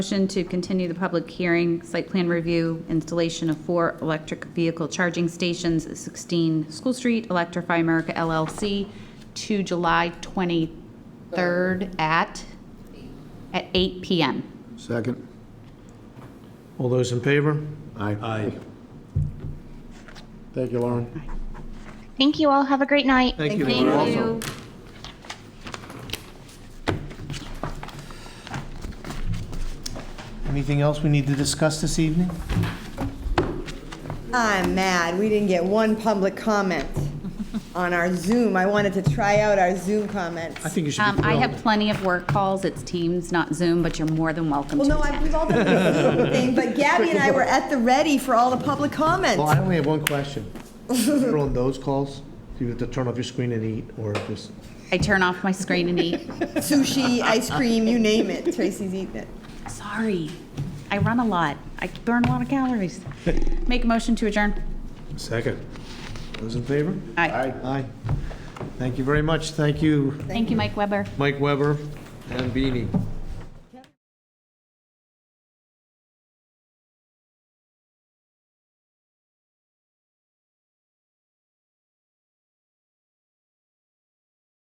Motion to continue the public hearing, site plan review, installation of four electric vehicle charging stations at 16 School Street, Electrify America LLC, to July 23rd at, at 8 PM. Second. All those in favor? Aye. Aye. Thank you, Lauren. Thank you all. Have a great night. Thank you. Thank you. Anything else we need to discuss this evening? I'm mad, we didn't get one public comment on our Zoom. I wanted to try out our Zoom I comments. think you should Um, be I have thrilled. plenty of work calls, it's Teams, not Zoom, but you're more than welcome Well, to no, I- attend. we've all done the Zoom thing, but Gabby and I were at the ready for all the public Well, I comments. only have one question. If You're on those calls, do you have to turn off your screen and eat, or just, I turn off my screen and eat. Sushi, ice cream, you name it, Tracy's eating it. Sorry, I run a lot, I burn a lot of calories. Make a motion to adjourn. second? Those in favor? Aye. Aye. Thank you very much. Thank you, Thank you, Mike Weber. Mike Weber and Beanie.